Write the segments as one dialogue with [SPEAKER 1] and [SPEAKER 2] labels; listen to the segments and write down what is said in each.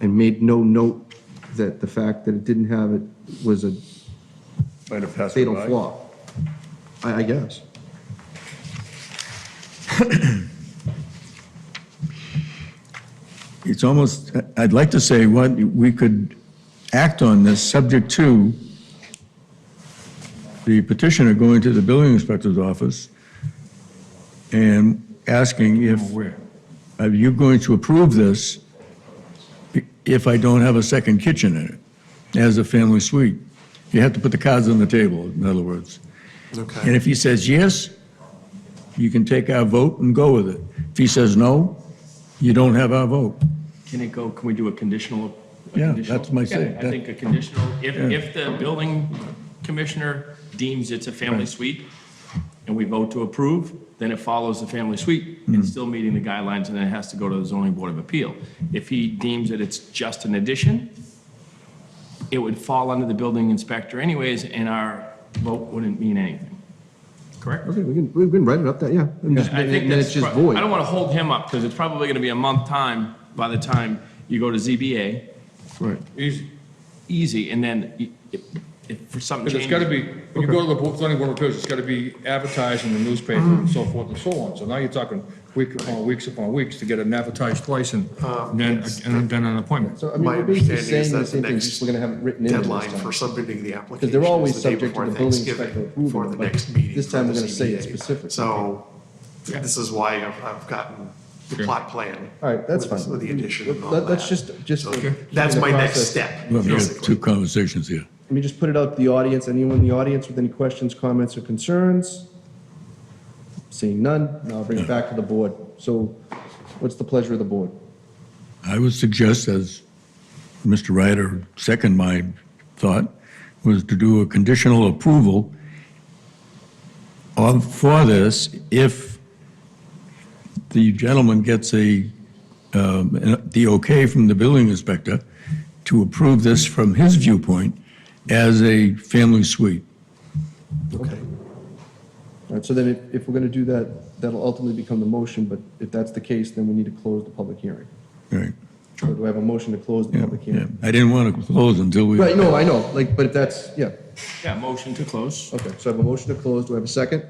[SPEAKER 1] and made no note that the fact that it didn't have it was a
[SPEAKER 2] Might have passed me
[SPEAKER 1] fatal
[SPEAKER 2] by.
[SPEAKER 1] flaw. I, I guess.
[SPEAKER 3] It's almost, I'd like to say what, we could act on this subject to the petitioner going to the building inspector's office and asking if, are you going to approve this if I don't have a second kitchen in it as a family suite? You have to put the cards on the table, in other words. And
[SPEAKER 4] Okay.
[SPEAKER 3] if he says yes, you can take our vote and go with it. If he says no, you don't have our vote.
[SPEAKER 5] Can it go, can we do a conditional? a
[SPEAKER 3] Yeah,
[SPEAKER 5] conditional?
[SPEAKER 3] that's my say.
[SPEAKER 5] Yeah, I
[SPEAKER 3] That-
[SPEAKER 5] think a conditional, if,
[SPEAKER 3] Yeah.
[SPEAKER 5] if the building commissioner deems it's a family suite and we vote to approve, then it follows the family suite and still meeting the guidelines and then it has to go to the zoning board of appeal. If he deems that it's just an addition, it would fall under the building inspector anyways and our vote wouldn't mean anything. Correct?
[SPEAKER 1] Okay, we can, we can write it up that, yeah. And just-
[SPEAKER 5] I think
[SPEAKER 1] and then
[SPEAKER 5] that's,
[SPEAKER 1] it's just
[SPEAKER 5] prob-
[SPEAKER 1] void.
[SPEAKER 5] I don't want to hold him up because it's probably going to be a month time by the time you go to ZBA.
[SPEAKER 3] Right.
[SPEAKER 6] Easy.
[SPEAKER 5] Easy, and then y- if, if for something
[SPEAKER 6] Because
[SPEAKER 5] changes.
[SPEAKER 6] it's gotta be, when you go to the Bo- zoning board of appeals, it's gotta be advertised in the newspaper and so forth and so on. So now you're talking week upon weeks upon weeks to get it advertised twice and then, and then an appointment.
[SPEAKER 1] So, I mean,
[SPEAKER 4] My
[SPEAKER 1] we're basically
[SPEAKER 4] understanding is
[SPEAKER 1] saying the
[SPEAKER 4] that the
[SPEAKER 1] same thing, just
[SPEAKER 4] next
[SPEAKER 1] we're gonna have it written in this
[SPEAKER 4] deadline
[SPEAKER 1] time.
[SPEAKER 4] for submitting the application
[SPEAKER 1] Because they're always
[SPEAKER 4] is the day
[SPEAKER 1] subject to
[SPEAKER 4] before
[SPEAKER 1] the building
[SPEAKER 4] Thanksgiving
[SPEAKER 1] inspector approving
[SPEAKER 4] for
[SPEAKER 1] it,
[SPEAKER 4] the
[SPEAKER 1] but
[SPEAKER 4] next meeting.
[SPEAKER 1] this
[SPEAKER 4] for
[SPEAKER 1] time
[SPEAKER 4] the
[SPEAKER 1] we're gonna say it
[SPEAKER 4] ZBA.
[SPEAKER 1] specifically.
[SPEAKER 4] So this is why I've, I've gotten the plot plan.
[SPEAKER 1] All right, that's
[SPEAKER 4] with-
[SPEAKER 1] fine.
[SPEAKER 4] With the addition and all
[SPEAKER 1] Let-
[SPEAKER 4] that.
[SPEAKER 1] let's just- just-
[SPEAKER 4] So
[SPEAKER 1] Okay.
[SPEAKER 4] That's my next
[SPEAKER 1] Process.
[SPEAKER 4] step,
[SPEAKER 3] We've got
[SPEAKER 4] basically.
[SPEAKER 3] two conversations here.
[SPEAKER 1] Let me just put it out to the audience. Anyone in the audience with any questions, comments, or concerns? Seeing none, now I'll bring it back to the board. So what's the pleasure of the board?
[SPEAKER 3] I would suggest, as Mr. Ryder second my thought, was to do a conditional approval of, for this if the gentleman gets a, um, an- the okay from the building inspector to approve this from his viewpoint as a family suite.
[SPEAKER 1] Okay. All right, so then if, if we're gonna do that, that'll ultimately become the motion, but if that's the case, then we need to close the public hearing.
[SPEAKER 3] Right.
[SPEAKER 1] So do I have a motion to close the
[SPEAKER 3] Yeah,
[SPEAKER 1] public
[SPEAKER 3] yeah.
[SPEAKER 1] hearing?
[SPEAKER 3] I didn't want to close until we.
[SPEAKER 1] Right, no, I know, like, but if that's, yeah,
[SPEAKER 5] Yeah, motion to close.
[SPEAKER 1] okay, so I have a motion to close, do I have a second?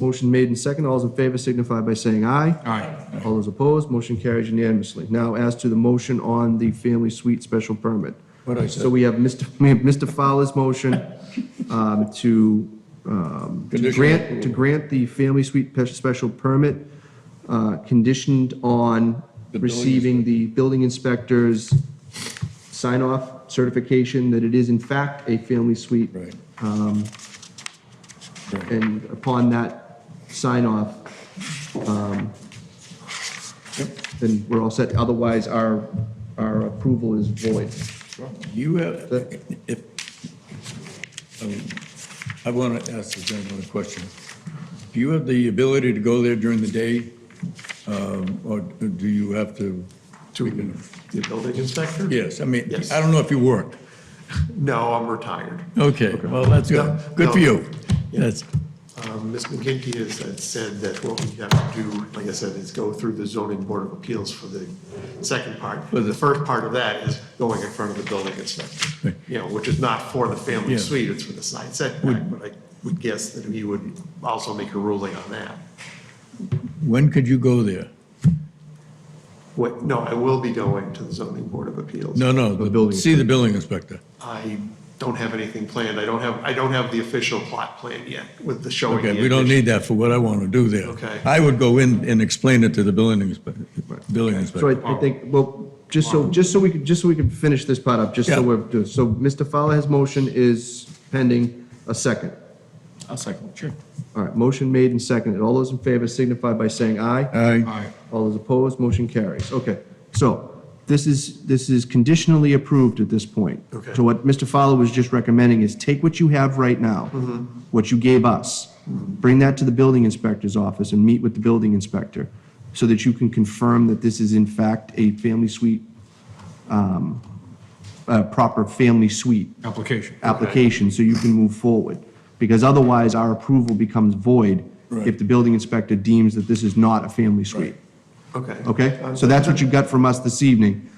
[SPEAKER 1] Motion made and second, all those in favor signify by saying aye.
[SPEAKER 6] Aye.
[SPEAKER 1] All those opposed, motion carries unanimously. Now, as to the motion on the family suite special permit.
[SPEAKER 3] What I said.
[SPEAKER 1] So we have Mr. we have Mr. Fowler's motion um, to, um, to
[SPEAKER 3] Conditional
[SPEAKER 1] grant, to grant the family suite pe- special permit uh, conditioned on
[SPEAKER 3] The building
[SPEAKER 1] receiving the building inspector's sign-off certification that it is in fact a family suite.
[SPEAKER 3] Right.
[SPEAKER 1] And upon that sign-off, um, then we're all set. Otherwise, our, our approval is void.
[SPEAKER 3] You have, if, um, I want to ask the gentleman a question. Do you have the ability to go there during the day, um, or do you have to?
[SPEAKER 4] The building inspector?
[SPEAKER 3] Yes, I mean,
[SPEAKER 4] Yes.
[SPEAKER 3] I don't know if you work.
[SPEAKER 4] No, I'm retired.
[SPEAKER 3] Okay, well, that's good.
[SPEAKER 4] No,
[SPEAKER 3] Good for
[SPEAKER 4] no.
[SPEAKER 3] you. That's,
[SPEAKER 4] Um, Ms. McGinty has had said that what we have to do, like I said, is go through the zoning board of appeals for the second part.
[SPEAKER 3] the-
[SPEAKER 4] The first part of that is going in front of the building inspector,
[SPEAKER 3] Right.
[SPEAKER 4] you know, which is not for the family
[SPEAKER 3] Yeah.
[SPEAKER 4] suite, it's for the side setback. But I would guess that he would also make a ruling on that.
[SPEAKER 3] when could you go there?
[SPEAKER 4] What, no, I will be going to the zoning board of appeals.
[SPEAKER 3] No, no,
[SPEAKER 1] The building
[SPEAKER 3] see the building inspector.
[SPEAKER 4] I don't have anything planned. I don't have, I don't have the official plot plan yet with the showing.
[SPEAKER 3] Okay,
[SPEAKER 4] the
[SPEAKER 3] we don't
[SPEAKER 4] addition.
[SPEAKER 3] need that for what I want to do there.
[SPEAKER 4] Okay.
[SPEAKER 3] I would go in and explain it to the building inspector, building
[SPEAKER 1] So
[SPEAKER 3] inspector.
[SPEAKER 1] I I think, well, just so, just so we could, just so we can finish this part up, just so
[SPEAKER 3] Yeah.
[SPEAKER 1] we're, doing- so Mr. Fowler's motion is pending a second.
[SPEAKER 5] I'll second, sure.
[SPEAKER 1] All right, motion made and seconded. All those in favor signify by saying aye.
[SPEAKER 3] Aye.
[SPEAKER 6] Aye.
[SPEAKER 1] All those opposed, motion carries. Okay, so this is, this is conditionally approved at this point.
[SPEAKER 4] Okay.
[SPEAKER 1] So what Mr. Fowler was just recommending is take what you have right now, what you gave us, bring that to the building inspector's office and meet with the building inspector so that you can confirm that this is in fact a family suite, um, a proper family suite
[SPEAKER 6] Application.
[SPEAKER 1] application so you can move forward. Because otherwise, our approval becomes void if
[SPEAKER 3] Right.
[SPEAKER 1] the building inspector deems that this is not a family suite.
[SPEAKER 4] Okay.
[SPEAKER 1] Okay? So that's what you got from us this evening.